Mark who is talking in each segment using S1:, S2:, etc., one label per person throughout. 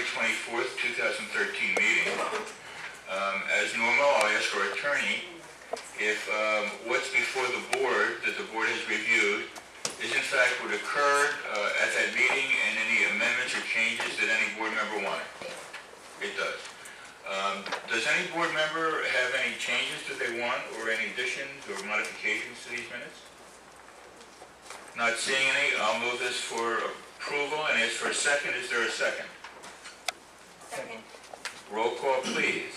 S1: 24th, 2013 meeting. Um, As normal, I'll ask our attorney if um, what's before the board, that the board has reviewed, is in fact what occurred uh, at that meeting and any amendments or changes that any board member wanted. It does. Um, Does any board member have any changes that they want or any additions or modifications to these minutes? Not seeing any, I'll move this for approval and ask for a second. Is there a second?
S2: Second.
S1: Roll call, please.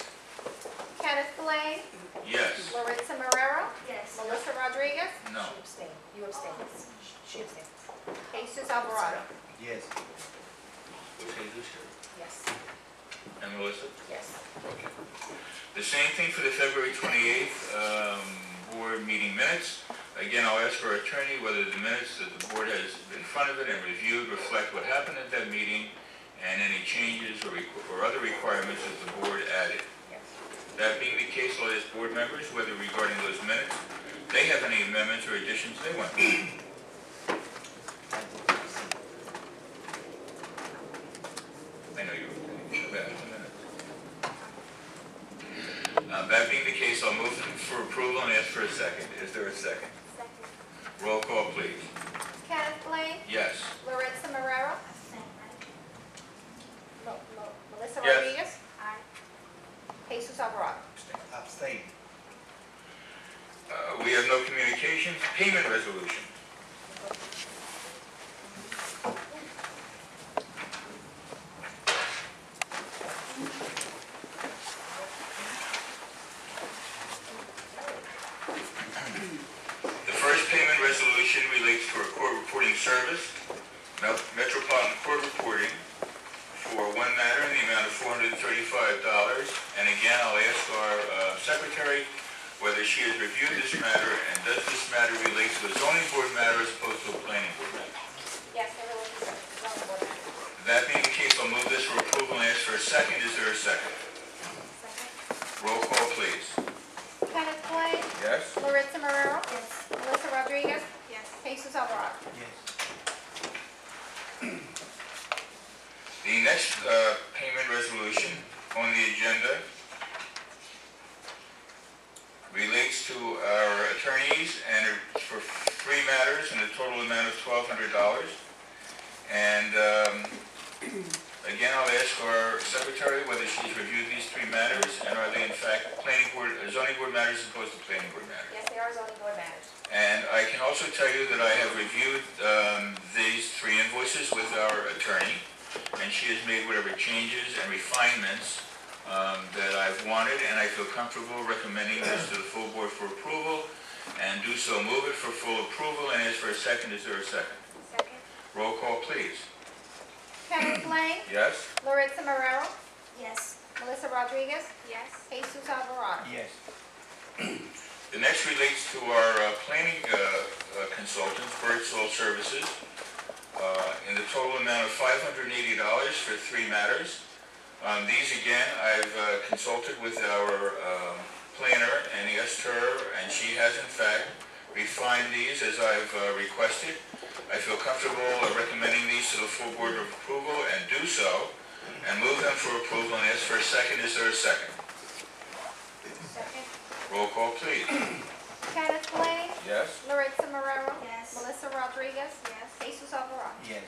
S2: Kenneth Blaine,
S1: Yes.
S2: Larissa Marrero,
S3: Yes.
S2: Melissa Rodriguez,
S1: No.
S4: She abstained. You abstained. She abstained.
S2: Jesus Alvarado.
S5: Yes.
S4: Yes,
S1: And Melissa?
S4: yes.
S1: The same thing for the February 28th um, board meeting minutes. Again, I'll ask our attorney whether the minutes that the board has in front of it and reviewed reflect what happened at that meeting and any changes or requ- or other requirements that the board added.
S4: Yes.
S1: That being the case, I'll ask board members whether regarding those minutes, they have any amendments or additions they want. I know you were thinking about it in a minute. Uh, That being the case, I'll move for approval and ask for a second. Is there a second? Roll call, please.
S2: Kenneth Blaine,
S1: Yes.
S2: Larissa Marrero, Mo- Mo- Melissa
S1: Yes.
S2: Rodriguez, Jesus Alvarado.
S5: Abstain.
S1: Uh, We have no communications. Payment resolution. The first payment resolution relates to our court reporting service, Mel- Metropolitan Court Reporting, for one matter in the amount of $435. And again, I'll ask our uh, secretary whether she has reviewed this matter and does this matter relate to a zoning board matter as opposed to a planning board matter.
S2: Yes, everyone is here.
S1: That being the case, I'll move this for approval and ask for a second. Is there a second? Roll call, please.
S2: Kenneth Blaine,
S1: Yes.
S2: Larissa Marrero, Melissa Rodriguez, Jesus Alvarado.
S5: Yes.
S1: The next uh, payment resolution on the agenda relates to our attorneys and for three matters in a total amount of twelve hundred dollars. And um, again, I'll ask our secretary whether she's reviewed these three matters and are they in fact planning board, zoning board matters as opposed to planning board matters.
S4: Yes, they are zoning board matters.
S1: And I can also tell you that I have reviewed um, these three invoices with our attorney, and she has made whatever changes and refinements um, that I've wanted, and I feel comfortable recommending this to the full board for approval, and do so move it for full approval, and ask for a second, is there a second? Roll call, please.
S2: Kenneth Blaine,
S1: Yes?
S2: Larissa Marrero,
S3: Yes.
S2: Melissa Rodriguez, Jesus Alvarado.
S5: Yes.
S1: The next relates to our uh, planning uh, uh, consultant, Birdsall Services, uh, in the total amount of $580 for three matters. On these, again, I've uh, consulted with our um, planner, Annie Esther, and she has in fact refined these as I've uh, requested. I feel comfortable recommending these to the full board of approval and do so, and move them for approval and ask for a second. Is there a second? Roll call, please.
S2: Kenneth Blaine,
S1: Yes?
S2: Larissa Marrero,
S3: Yes.
S2: Melissa Rodriguez, Jesus Alvarado.
S5: Yes.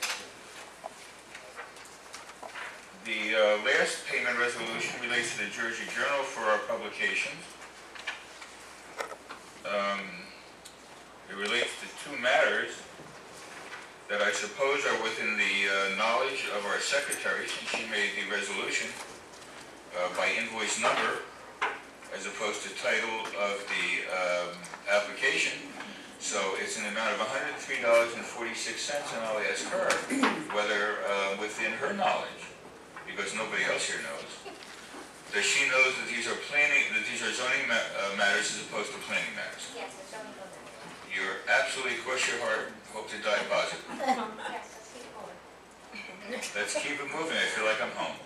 S1: The uh, last payment resolution relates to the Jersey Journal for our publications. Um, It relates to two matters that I suppose are within the uh, knowledge of our secretary, since she made the resolution uh, by invoice number as opposed to title of the um, application. So it's an amount of $103.46, and I'll ask her whether, uh, within her knowledge, because nobody else here knows, that she knows that these are planning, that these are zoning ma- uh, matters as opposed to planning matters.
S4: Yes, they're zoning board matters.
S1: You're absolutely, cross your heart, hope to die positive.
S4: Yes, let's keep it going.
S1: Let's keep it moving, I feel like I'm home.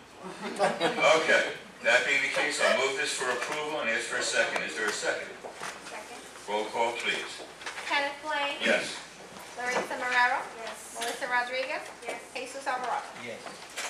S1: Okay, that being the case, I'll move this for approval and ask for a second. Is there a second? Roll call, please.
S2: Kenneth Blaine.
S1: Yes.
S2: Larissa Marrero, Melissa Rodriguez, Jesus Alvarado.
S5: Yes.